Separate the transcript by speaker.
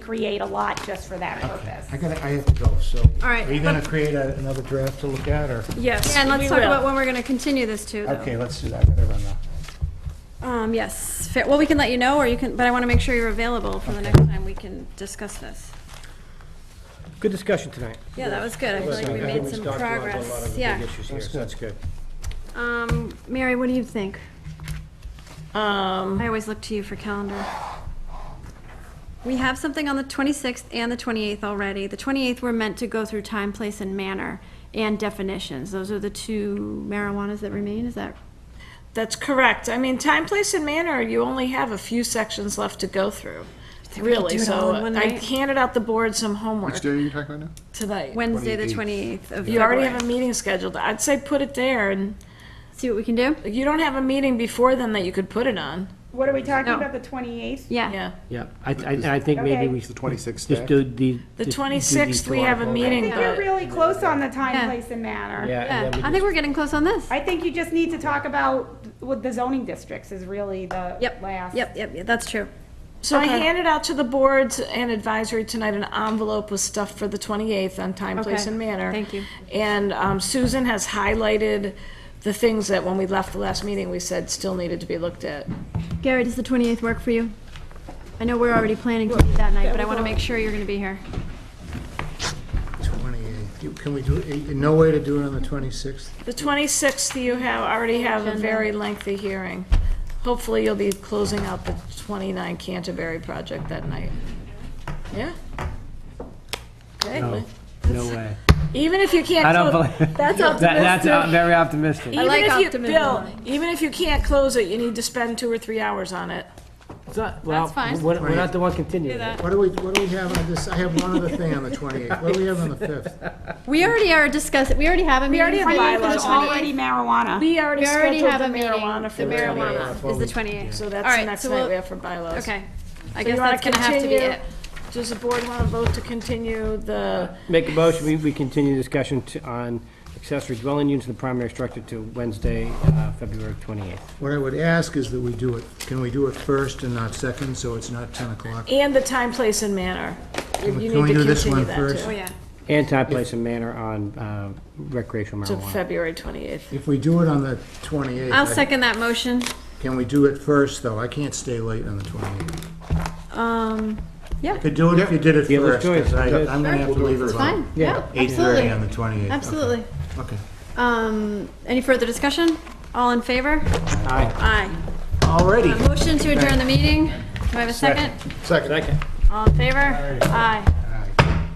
Speaker 1: create a lot just for that purpose.
Speaker 2: I gotta, I have to go, so.
Speaker 3: All right,
Speaker 2: Are you gonna
Speaker 3: but-
Speaker 2: create a- another draft to look at, or?
Speaker 3: Yes. And let's
Speaker 4: we
Speaker 3: talk
Speaker 4: will.
Speaker 3: about when we're going to continue this too, though.
Speaker 2: Okay, let's do that, I gotta run now.
Speaker 3: Um, yes, fair, well, we can let you know, or you can, but I want to make sure you're available for the next time we can discuss this.
Speaker 5: Good discussion tonight.
Speaker 3: Yeah, that was good, I feel like we
Speaker 5: I think
Speaker 3: made
Speaker 5: we
Speaker 3: some
Speaker 5: talked about a lot of
Speaker 3: progress,
Speaker 5: the
Speaker 3: yeah.
Speaker 5: big issues here,
Speaker 2: That's
Speaker 5: so that's good.
Speaker 3: Um, Mary, what do you think?
Speaker 4: Um,
Speaker 3: I always look to you for calendar. We have something on the 26th and the 28th already. The 28th, we're meant to go through time, place, and manner, and definitions. Those are the two marijuanas that remain, is that?
Speaker 4: that's correct. I mean, time, place, and manner, you only have a few sections left to go through, really.
Speaker 3: do it all
Speaker 4: So
Speaker 3: in one
Speaker 4: I
Speaker 3: night?
Speaker 4: handed out the board some homework
Speaker 6: Which day are you talking about now?
Speaker 4: tonight.
Speaker 3: Wednesday, the 28th of
Speaker 4: You already have
Speaker 3: February.
Speaker 4: a meeting scheduled. I'd say put it there, and
Speaker 3: See what we can do?
Speaker 4: you don't have a meeting before then that you could put it on.
Speaker 1: What are we talking
Speaker 3: No.
Speaker 1: about, the 28th?
Speaker 3: Yeah.
Speaker 4: Yeah.
Speaker 5: Yeah, I, I, I think maybe we.
Speaker 1: Okay.
Speaker 6: The 26th
Speaker 5: Just
Speaker 6: stack?
Speaker 5: do the.
Speaker 4: The
Speaker 5: just do
Speaker 4: 26th,
Speaker 5: two
Speaker 4: we have a
Speaker 5: articles.
Speaker 1: I
Speaker 4: meeting,
Speaker 1: think you're
Speaker 4: but
Speaker 1: really close on the
Speaker 3: Yeah.
Speaker 1: time, place, and manner.
Speaker 5: Yeah.
Speaker 3: Yeah,
Speaker 5: and then
Speaker 3: I
Speaker 5: we
Speaker 3: think
Speaker 5: just-
Speaker 3: we're getting close on this.
Speaker 1: I think you just need to talk about what the zoning districts is really the
Speaker 3: Yep,
Speaker 1: last.
Speaker 3: yep, yep, yeah, that's true.
Speaker 4: So I
Speaker 3: Okay.
Speaker 4: handed out to the boards and advisory tonight an envelope with stuff for the 28th on time, place,
Speaker 3: Okay.
Speaker 4: and manner.
Speaker 3: Thank you.
Speaker 4: And um, Susan has highlighted the things that when we left the last meeting, we said still needed to be looked at.
Speaker 3: Gary, does the 28th work for you? I know we're already planning to meet that night, but I want to make sure you're going to be here.
Speaker 2: Twenty-eighth, You- can we do, it? no way to do it on the twenty-sixth?
Speaker 4: The 26th, you have, already have a
Speaker 3: Agenda.
Speaker 4: very lengthy hearing. Hopefully, you'll be closing out the 29 Canterbury project that night. Yeah?
Speaker 5: No,
Speaker 4: Okay.
Speaker 5: no way.
Speaker 4: Even if you can't.
Speaker 5: I don't
Speaker 4: clo-
Speaker 5: believe.
Speaker 4: That's
Speaker 5: That, that's uh,
Speaker 4: optimistic.
Speaker 5: very optimistic.
Speaker 4: Even
Speaker 3: like
Speaker 4: if you,
Speaker 3: optimism.
Speaker 4: Bill, even if you can't close it, you need to spend two or three hours on it.
Speaker 5: It's not- well,
Speaker 3: That's fine.
Speaker 5: We're we're not the one continuing. it.
Speaker 2: What do we, what do we have on this, I have one other thing on the twenty-eighth, what do we have on the fifth?
Speaker 3: We already are discussing, we already have a meeting.
Speaker 4: already have
Speaker 3: planned for the
Speaker 1: There's
Speaker 4: bylaws.
Speaker 3: 28th.
Speaker 1: already marijuana.
Speaker 4: We already
Speaker 3: We already
Speaker 4: scheduled
Speaker 3: have
Speaker 4: the
Speaker 3: a meeting.
Speaker 4: marijuana for
Speaker 3: The
Speaker 4: the
Speaker 3: marijuana
Speaker 4: 28th.
Speaker 3: is the 28th.
Speaker 4: So
Speaker 3: All
Speaker 4: that's the
Speaker 3: right,
Speaker 4: next
Speaker 3: so
Speaker 4: night
Speaker 3: we'll-
Speaker 4: we have for bylaws.
Speaker 3: Okay, I
Speaker 4: So
Speaker 3: guess
Speaker 4: you wanna
Speaker 3: that's gonna have to be
Speaker 4: continue-
Speaker 3: it.
Speaker 4: Does the board want to vote to continue the,
Speaker 5: Make a motion, we, we continue discussion to, on accessory dwelling units in the primary structure to Wednesday, uh, February twenty-eighth.
Speaker 2: What I would ask is that we do it, can we do it first and not second, so it's not ten o'clock?
Speaker 4: and the time, place, and manner? You
Speaker 2: we-
Speaker 4: you
Speaker 2: can we
Speaker 4: need to
Speaker 2: do this
Speaker 4: continue
Speaker 2: one
Speaker 4: that
Speaker 2: first?
Speaker 3: Oh,
Speaker 4: too.
Speaker 3: yeah.
Speaker 5: And time, place, and manner on, uh, recreational
Speaker 4: To
Speaker 5: marijuana.
Speaker 4: February 28th.
Speaker 2: If we do it on the twenty-eighth.
Speaker 3: I'll second that motion.
Speaker 2: Can we do it first, though? I can't stay late on the 28th.
Speaker 3: Um,
Speaker 2: Could do it if you did it
Speaker 5: Yeah, let's
Speaker 2: first,
Speaker 5: do it.
Speaker 2: 'cause I-
Speaker 5: Yeah.
Speaker 2: I'm gonna have to leave at
Speaker 3: it's
Speaker 2: about
Speaker 3: fine, yeah, absolutely.
Speaker 2: 8:30 on the 28th.
Speaker 3: Absolutely.
Speaker 2: Okay.
Speaker 3: Um, any further discussion? All in favor?
Speaker 5: Aye.
Speaker 3: Aye.
Speaker 2: Alrighty.
Speaker 3: A motion to adjourn the meeting. Do I have a second?
Speaker 6: Second.
Speaker 3: All in favor? Aye.